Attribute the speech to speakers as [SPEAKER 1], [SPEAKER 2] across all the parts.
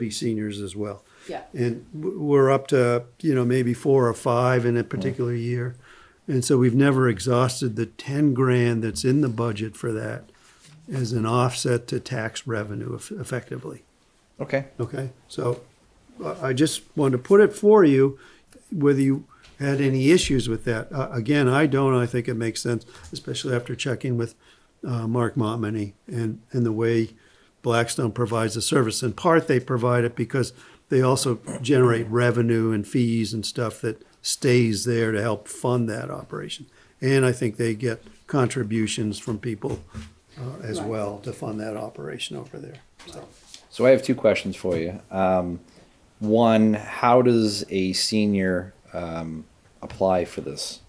[SPEAKER 1] be seniors as well.
[SPEAKER 2] Yeah.
[SPEAKER 1] And w- we're up to, you know, maybe four or five in a particular year. And so we've never exhausted the ten grand that's in the budget for that as an offset to tax revenue eff- effectively.
[SPEAKER 3] Okay.
[SPEAKER 1] Okay, so I- I just wanted to put it for you, whether you had any issues with that. Uh, Again, I don't, I think it makes sense, especially after checking with uh, Mark Montminy and, and the way Blackstone provides the service. In part, they provide it because they also generate revenue and fees and stuff that stays there to help fund that operation. And I think they get contributions from people uh, as
[SPEAKER 2] Right.
[SPEAKER 1] well to fund that operation over there, so.
[SPEAKER 3] So I have two questions for you. Um, one, how does a senior um, apply for this?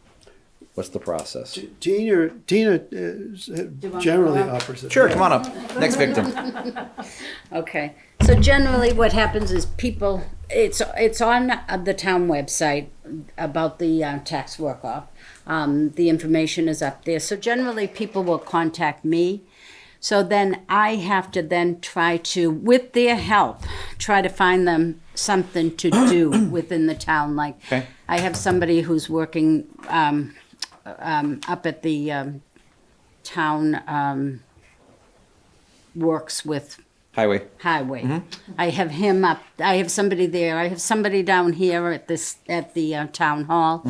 [SPEAKER 3] What's the process?
[SPEAKER 1] T- Tina, Tina is
[SPEAKER 2] want to
[SPEAKER 1] generally
[SPEAKER 2] go up?
[SPEAKER 1] offers it.
[SPEAKER 3] Sure, come on up. Next victim.
[SPEAKER 4] Okay, so generally what happens is people, it's, it's on the town website about the uh, tax work-off. Um, the information is up there, so generally people will contact me. So then I have to then try to, with their help, try to find them something to do within the town, like.
[SPEAKER 3] Okay.
[SPEAKER 4] I have somebody who's working, um, um, up at the, um, town, um, works with
[SPEAKER 3] Highway.
[SPEAKER 4] highway. I have him up. I have somebody there. I have somebody down here at this at the uh, town hall.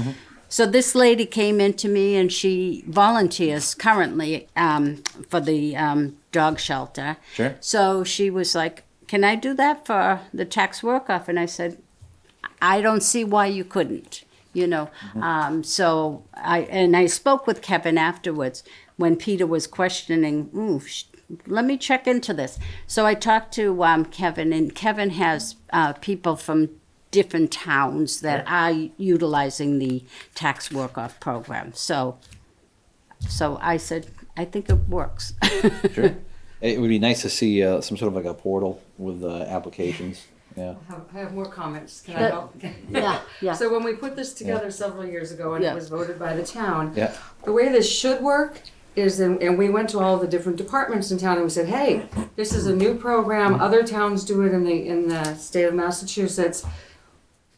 [SPEAKER 4] So this lady came in to me, and she volunteers currently um, for the um, dog shelter.
[SPEAKER 3] Sure.
[SPEAKER 4] So she was like, "Can I do that for the tax work off?" And I said, I don't see why you couldn't, you know. Um, so I and I spoke with Kevin afterwards when Peter was questioning. Ooh, sh- let me check into this. So I talked to um, Kevin, and Kevin has uh, people from different towns that are utilizing the tax work off program. So, so I said, I think it works.
[SPEAKER 3] Sure. it would be nice to see uh, some sort of like a portal with uh, applications. Yeah.
[SPEAKER 5] I have- I have more comments. Can I
[SPEAKER 4] But-
[SPEAKER 5] help?
[SPEAKER 4] yeah, yeah.
[SPEAKER 5] So when we put this together several years ago and
[SPEAKER 4] Yeah.
[SPEAKER 5] it was voted by the town,
[SPEAKER 3] Yeah.
[SPEAKER 5] the way this should work is, in- and we went to all the different departments in town and we said, hey, this is a new program. Other towns do it in the, in the state of Massachusetts.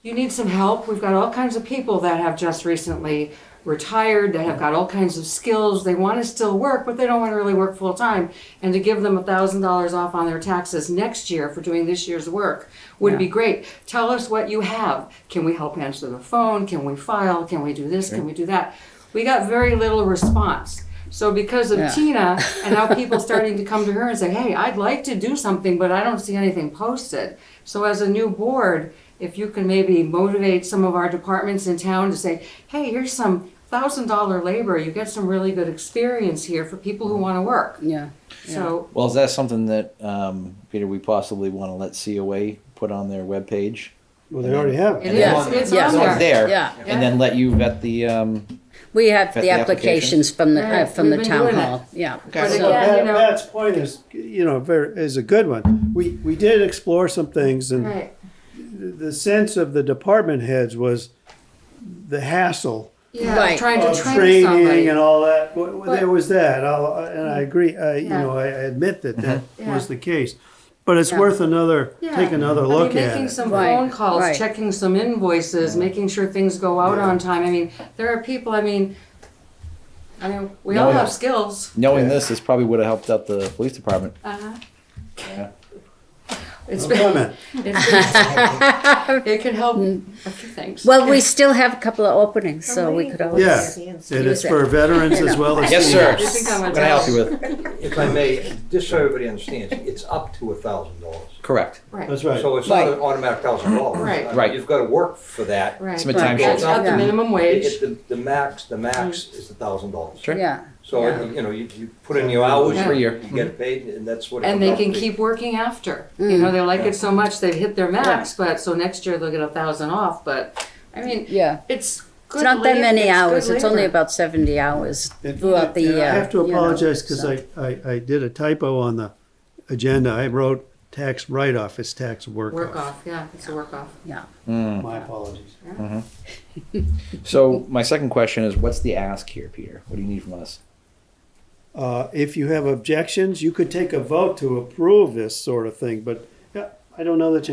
[SPEAKER 5] You need some help. We've got all kinds of people that have just recently retired, that have got all kinds of skills. They want to still work, but they don't want to really work full time. And to give them a thousand dollars off on their taxes next year for doing this year's work would be great. Tell us what you have. Can we help answer the phone? Can we file? Can we do this? Can we do that? We got very little response. So because of Tina and how people starting to come to her and say, "Hey, I'd like to do something, but I don't see anything posted." So as a new board, if you can maybe motivate some of our departments in town to say, "Hey, here's some thousand dollar labor. You get some really good experience here for people who want to work."
[SPEAKER 4] yeah.
[SPEAKER 5] So
[SPEAKER 3] Well, is that something that, um, Peter, we possibly want to let COA put on their webpage?
[SPEAKER 1] Well, they already have.
[SPEAKER 5] it
[SPEAKER 3] And then
[SPEAKER 4] Yeah.
[SPEAKER 5] is.
[SPEAKER 3] on-
[SPEAKER 5] It's
[SPEAKER 4] Yeah.
[SPEAKER 5] on
[SPEAKER 3] So it's
[SPEAKER 5] there.
[SPEAKER 3] there.
[SPEAKER 4] Yeah.
[SPEAKER 3] And then let you vet the. Um,
[SPEAKER 4] We have
[SPEAKER 3] Got
[SPEAKER 4] the,
[SPEAKER 3] the
[SPEAKER 4] applications from the uh,
[SPEAKER 5] Right,
[SPEAKER 4] from
[SPEAKER 5] we've
[SPEAKER 4] the
[SPEAKER 5] been
[SPEAKER 4] town
[SPEAKER 5] doing it.
[SPEAKER 4] hall. Yeah.
[SPEAKER 5] But
[SPEAKER 3] So-
[SPEAKER 5] again,
[SPEAKER 1] Pat-
[SPEAKER 5] you know-
[SPEAKER 1] Pat's point is, you know, very, is a good one. We, we did explore some things and
[SPEAKER 5] Right.
[SPEAKER 1] the sense of the department heads was the hassle
[SPEAKER 5] Yeah.
[SPEAKER 4] Right.
[SPEAKER 5] Trying to
[SPEAKER 1] of
[SPEAKER 5] train somebody.
[SPEAKER 1] training and all that. W- w- There
[SPEAKER 5] But-
[SPEAKER 1] was that, I'll- and I agree, I, you
[SPEAKER 5] Yeah. Mm-hmm.
[SPEAKER 1] know, I I admit that that
[SPEAKER 5] Yeah.
[SPEAKER 1] was the case. But it's
[SPEAKER 4] Yeah.
[SPEAKER 1] worth another, take
[SPEAKER 5] Yeah.
[SPEAKER 1] another
[SPEAKER 5] I mean,
[SPEAKER 1] look at
[SPEAKER 5] Making
[SPEAKER 1] it.
[SPEAKER 5] some
[SPEAKER 4] Right,
[SPEAKER 5] phone calls,
[SPEAKER 4] right.
[SPEAKER 5] checking some invoices, making sure things go out on time. I mean, there are people, I mean, I mean, we all
[SPEAKER 3] No.
[SPEAKER 5] have skills.
[SPEAKER 3] Knowing this, this probably would have helped out the police department.
[SPEAKER 5] Uh-huh.
[SPEAKER 3] Yeah.
[SPEAKER 5] It's
[SPEAKER 1] No
[SPEAKER 5] been,
[SPEAKER 1] comment.
[SPEAKER 5] it's been- it can help a few things.
[SPEAKER 4] Well, we still have a couple of openings, so we could always.
[SPEAKER 1] Yeah, and it's for veterans as well as.
[SPEAKER 3] Yes, sir.
[SPEAKER 5] You think I'm a
[SPEAKER 3] What can I help you with?
[SPEAKER 6] If I may, just so everybody understands, it's up to a thousand dollars.
[SPEAKER 3] Correct.
[SPEAKER 5] Right,
[SPEAKER 1] That's right.
[SPEAKER 6] So it's not
[SPEAKER 4] Right.
[SPEAKER 6] an automatic thousand dollars. Uh,
[SPEAKER 5] Right.
[SPEAKER 3] Right.
[SPEAKER 6] You've got to work for that.
[SPEAKER 5] right.
[SPEAKER 3] Some time
[SPEAKER 5] That's
[SPEAKER 3] sheet.
[SPEAKER 5] not the
[SPEAKER 4] Yeah.
[SPEAKER 5] minimum
[SPEAKER 6] It-
[SPEAKER 5] wage.
[SPEAKER 6] it- the, the max, the max is a thousand dollars.
[SPEAKER 3] Sure.
[SPEAKER 4] Yeah.
[SPEAKER 6] So,
[SPEAKER 5] Mm. Yeah.
[SPEAKER 6] you know, you, you put in your hours.
[SPEAKER 5] Per
[SPEAKER 3] year. Mm-hmm.
[SPEAKER 6] You get paid and that's what. it
[SPEAKER 5] And they
[SPEAKER 6] comes out
[SPEAKER 5] can
[SPEAKER 6] to be.
[SPEAKER 5] keep working after. You know, they like it so much, they've hit their max, but, so next year they'll get a thousand off, but, I mean,
[SPEAKER 4] Yeah.
[SPEAKER 5] it's good
[SPEAKER 4] It's not that
[SPEAKER 5] lab-
[SPEAKER 4] many
[SPEAKER 5] it's good
[SPEAKER 4] hours. It's only
[SPEAKER 5] labor.
[SPEAKER 4] about 70 hours
[SPEAKER 1] And-
[SPEAKER 4] throughout the
[SPEAKER 1] and
[SPEAKER 4] year.
[SPEAKER 1] I have to
[SPEAKER 4] you know,
[SPEAKER 1] apologize because
[SPEAKER 4] so.
[SPEAKER 1] I, I, I did a typo on the agenda. I wrote tax write-off as tax
[SPEAKER 5] Work
[SPEAKER 1] work-off.
[SPEAKER 5] off, yeah, it's a work off.
[SPEAKER 4] Yeah.
[SPEAKER 1] My apologies.
[SPEAKER 3] So my second question is, what's the ask here, Peter? What do you need from us?
[SPEAKER 1] Uh, if you have objections, you could take a vote to approve this sort of thing, but yeah, I don't know that you